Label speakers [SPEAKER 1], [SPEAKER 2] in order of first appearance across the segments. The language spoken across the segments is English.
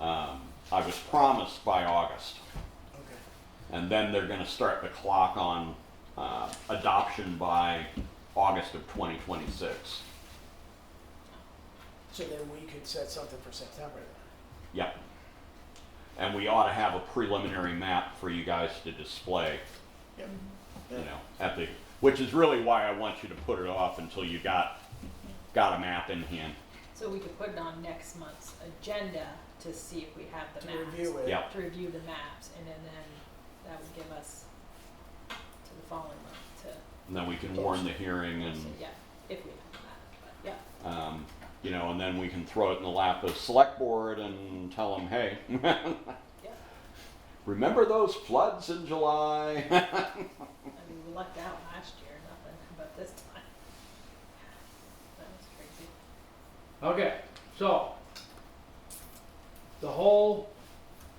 [SPEAKER 1] Um, was promised by August.
[SPEAKER 2] Okay.
[SPEAKER 1] And then they're gonna start the clock on, uh, adoption by August of twenty twenty-six.
[SPEAKER 2] So then we could set something for September then.
[SPEAKER 1] Yep. And we ought to have a preliminary map for you guys to display,
[SPEAKER 2] Yep.
[SPEAKER 1] you know, at the, which is really why I want you to put it off until you got, got a map in hand.
[SPEAKER 3] So we could put it on next month's agenda to see if we have the
[SPEAKER 2] To
[SPEAKER 3] maps.
[SPEAKER 2] review it.
[SPEAKER 1] Yep.
[SPEAKER 3] To review the maps, and then, then that would give us to the following month to,
[SPEAKER 1] And then we can warn the hearing and,
[SPEAKER 3] so, yeah, if we have that, but, yeah.
[SPEAKER 1] um, you know, and then we can throw it in the lap of select board and tell them, hey,
[SPEAKER 3] Yeah,
[SPEAKER 1] remember those floods in July?
[SPEAKER 3] I mean, we lucked out last year, nothing, but this time. That was crazy.
[SPEAKER 4] Okay, so the whole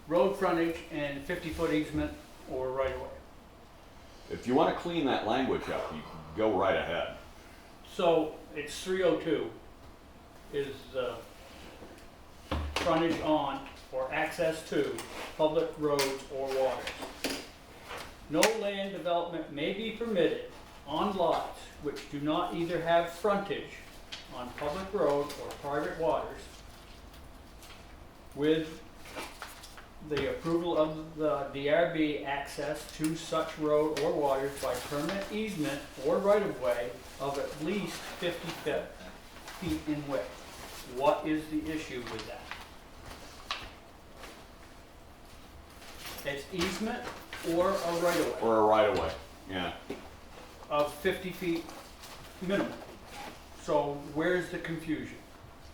[SPEAKER 4] road frontage and fifty foot easement or right away.
[SPEAKER 1] If you want to clean that language up, you can go right ahead.
[SPEAKER 4] So it's three oh two is uh, frontage on or access to public roads or waters. No land development may be permitted on lots which do not either have frontage on public road or private waters with the approval of the DRB access to such road or waters by permanent easement or right-of-way of at least 50 fe- feet in width. What is the issue with that? It's easement or a right-of-way
[SPEAKER 1] Or a right of way, yeah.
[SPEAKER 4] of 50 feet minimum. So where's the confusion?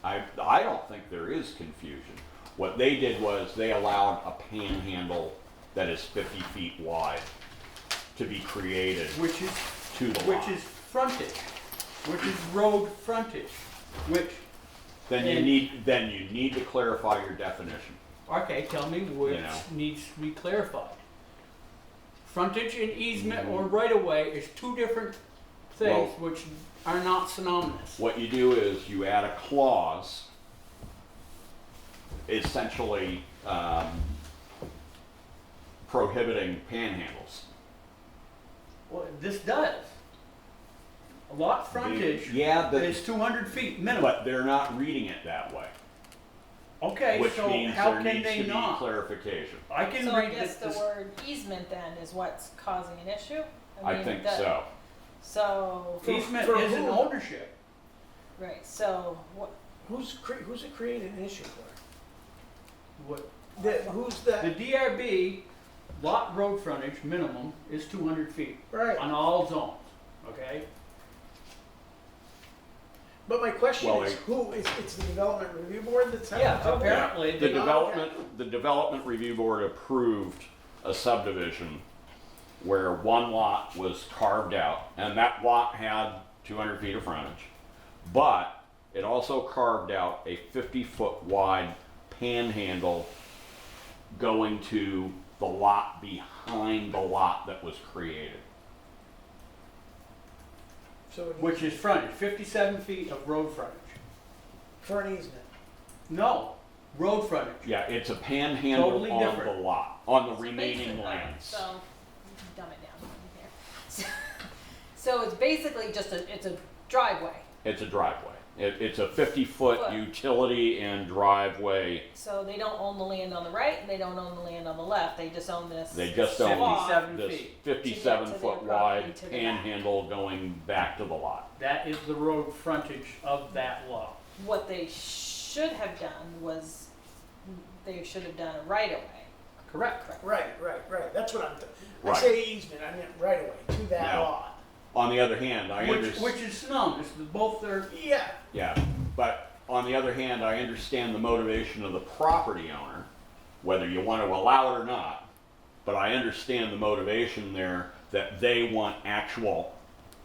[SPEAKER 1] I, I don't think there is confusion. What they did was they allowed a panhandle that is 50 feet wide to be created
[SPEAKER 4] Which is
[SPEAKER 1] to the
[SPEAKER 4] which
[SPEAKER 1] lot.
[SPEAKER 4] is frontage, which is road frontage, which,
[SPEAKER 1] then you need then you need to clarify your definition.
[SPEAKER 4] okay, tell me which
[SPEAKER 1] You know.
[SPEAKER 4] needs to be clarified. Frontage and easement
[SPEAKER 1] Mm-hmm.
[SPEAKER 4] or right of way is two different things which are not synonymous.
[SPEAKER 1] What you do is you add a clause, essentially um, prohibiting panhandles.
[SPEAKER 4] Well, this does. A lot frontage
[SPEAKER 1] yeah, but-
[SPEAKER 4] is two hundred feet minimum.
[SPEAKER 1] But they're not reading it that way,
[SPEAKER 4] Okay,
[SPEAKER 1] which
[SPEAKER 4] so
[SPEAKER 1] means
[SPEAKER 4] how
[SPEAKER 1] there
[SPEAKER 4] can
[SPEAKER 1] needs
[SPEAKER 4] they
[SPEAKER 1] to be
[SPEAKER 4] not?
[SPEAKER 1] clarification.
[SPEAKER 4] I can
[SPEAKER 3] So I
[SPEAKER 4] read
[SPEAKER 3] guess
[SPEAKER 4] this,
[SPEAKER 3] the
[SPEAKER 4] this-
[SPEAKER 3] word easement then is what's causing an issue?
[SPEAKER 1] I
[SPEAKER 3] mean,
[SPEAKER 1] think
[SPEAKER 3] the-
[SPEAKER 1] so.
[SPEAKER 3] So,
[SPEAKER 2] For-
[SPEAKER 4] easement
[SPEAKER 2] for
[SPEAKER 4] is an
[SPEAKER 2] who?
[SPEAKER 4] ownership.
[SPEAKER 3] right, so what,
[SPEAKER 2] Who's cre- who's it creating an issue for?
[SPEAKER 4] What,
[SPEAKER 2] That who's
[SPEAKER 4] The
[SPEAKER 2] that?
[SPEAKER 4] DRB lot road frontage minimum is two hundred feet
[SPEAKER 2] Right.
[SPEAKER 4] on all zones, okay?
[SPEAKER 2] But my question
[SPEAKER 1] Well,
[SPEAKER 2] is,
[SPEAKER 1] I-
[SPEAKER 2] who is it's the development review board that's having
[SPEAKER 4] Yeah,
[SPEAKER 2] trouble?
[SPEAKER 4] apparently.
[SPEAKER 1] the
[SPEAKER 4] they-
[SPEAKER 1] development, the development review board approved a subdivision where one lot was carved out, and that lot had two hundred feet of frontage. But it also carved out a fifty-foot wide panhandle going to the lot behind the lot that was created.
[SPEAKER 2] So it-
[SPEAKER 4] Which is frontage, fifty-seven feet of road frontage.
[SPEAKER 2] for an easement.
[SPEAKER 4] No, road frontage.
[SPEAKER 1] Yeah, it's a panhandle
[SPEAKER 4] Totally
[SPEAKER 1] on the
[SPEAKER 4] different.
[SPEAKER 1] lot, on the
[SPEAKER 3] It's
[SPEAKER 1] remaining
[SPEAKER 3] basically-
[SPEAKER 1] lands.
[SPEAKER 3] So, dumb it down here. So- So it's basically just a, it's a driveway,
[SPEAKER 1] It's a driveway. It, it's a fifty-foot
[SPEAKER 3] Foot.
[SPEAKER 1] utility and driveway.
[SPEAKER 3] so they don't own the land on the right, and they don't own the land on the left, they just own this.
[SPEAKER 1] They just own
[SPEAKER 3] Walk.
[SPEAKER 4] Seventy-seven
[SPEAKER 1] this
[SPEAKER 4] feet.
[SPEAKER 1] fifty-seven
[SPEAKER 3] To get to
[SPEAKER 1] foot
[SPEAKER 3] their property
[SPEAKER 1] wide
[SPEAKER 3] to the back.
[SPEAKER 1] panhandle going back to the lot.
[SPEAKER 4] That is the road frontage of that lot.
[SPEAKER 3] What they should have done was, they should have done a right of way.
[SPEAKER 4] Correct.
[SPEAKER 2] Right, right, right. That's what I'm. Th-
[SPEAKER 1] Right.
[SPEAKER 2] I say easement. I meant right away to that
[SPEAKER 1] No.
[SPEAKER 2] lot.
[SPEAKER 1] On the other hand, I
[SPEAKER 4] Which, which
[SPEAKER 1] understand,
[SPEAKER 4] is synonymous, both are,
[SPEAKER 2] Yeah.
[SPEAKER 1] yeah, but on the other hand, I understand the motivation of the property owner, whether you want to allow it or not. But I understand the motivation there that they want actual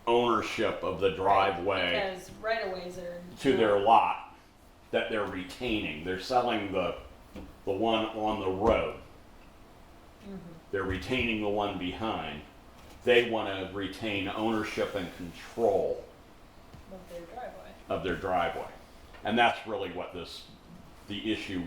[SPEAKER 1] ownership of the driveway
[SPEAKER 3] Because right of ways are.
[SPEAKER 1] to their lot that they're retaining. They're selling the, the one on the road. They're retaining the one behind. They want to retain ownership and control
[SPEAKER 3] Of their driveway.
[SPEAKER 1] of their driveway. And that's really what this, the issue